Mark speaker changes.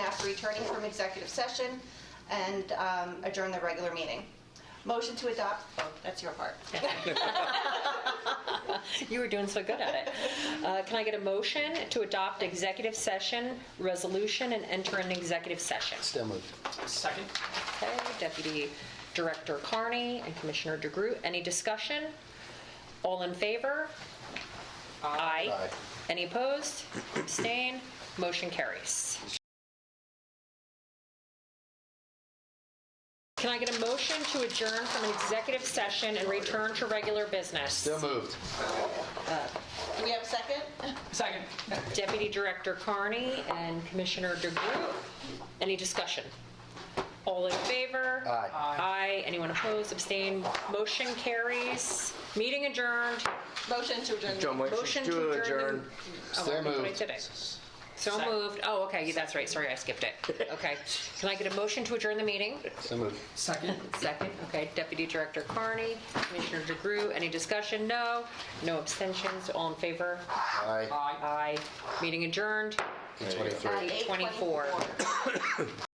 Speaker 1: after returning from executive session and um, adjourn the regular meeting. Motion to adopt, oh, that's your part.
Speaker 2: You were doing so good at it. Uh, Can I get a motion to adopt executive session resolution and enter an executive session?
Speaker 3: Still moved.
Speaker 4: Second.
Speaker 2: Okay, Deputy Director Carney and Commissioner DeGroot, any discussion? All in favor? Aye.
Speaker 3: Aye.
Speaker 2: Any opposed? Abstain? Motion carries. Can I get a motion to adjourn from an executive session and return to regular business?
Speaker 3: Still moved.
Speaker 1: Do we have a second?
Speaker 4: Second.
Speaker 2: Deputy Director Carney and Commissioner DeGroot. Any discussion? All in favor?
Speaker 3: Aye.
Speaker 2: Aye. Anyone opposed, abstained? Motion carries. Meeting adjourned.
Speaker 1: Motion to adjourn.
Speaker 3: John, wait.
Speaker 2: Motion to
Speaker 3: To
Speaker 2: adjourn.
Speaker 3: adjourn.
Speaker 2: Oh,
Speaker 3: Still
Speaker 2: I think I
Speaker 3: moved.
Speaker 2: did it. So moved. Oh, okay, that's right. Sorry, I skipped it. Okay. Can I get a motion to adjourn the meeting?
Speaker 3: Still moved.
Speaker 4: Second.
Speaker 2: Second. Okay, Deputy Director Carney, Commissioner DeGroot, any discussion? No. No abstentions. All in favor?
Speaker 3: Aye.
Speaker 4: Aye.
Speaker 2: Aye. Meeting adjourned.
Speaker 3: Eight twenty-three.
Speaker 1: At 8:24.
Speaker 2: 24.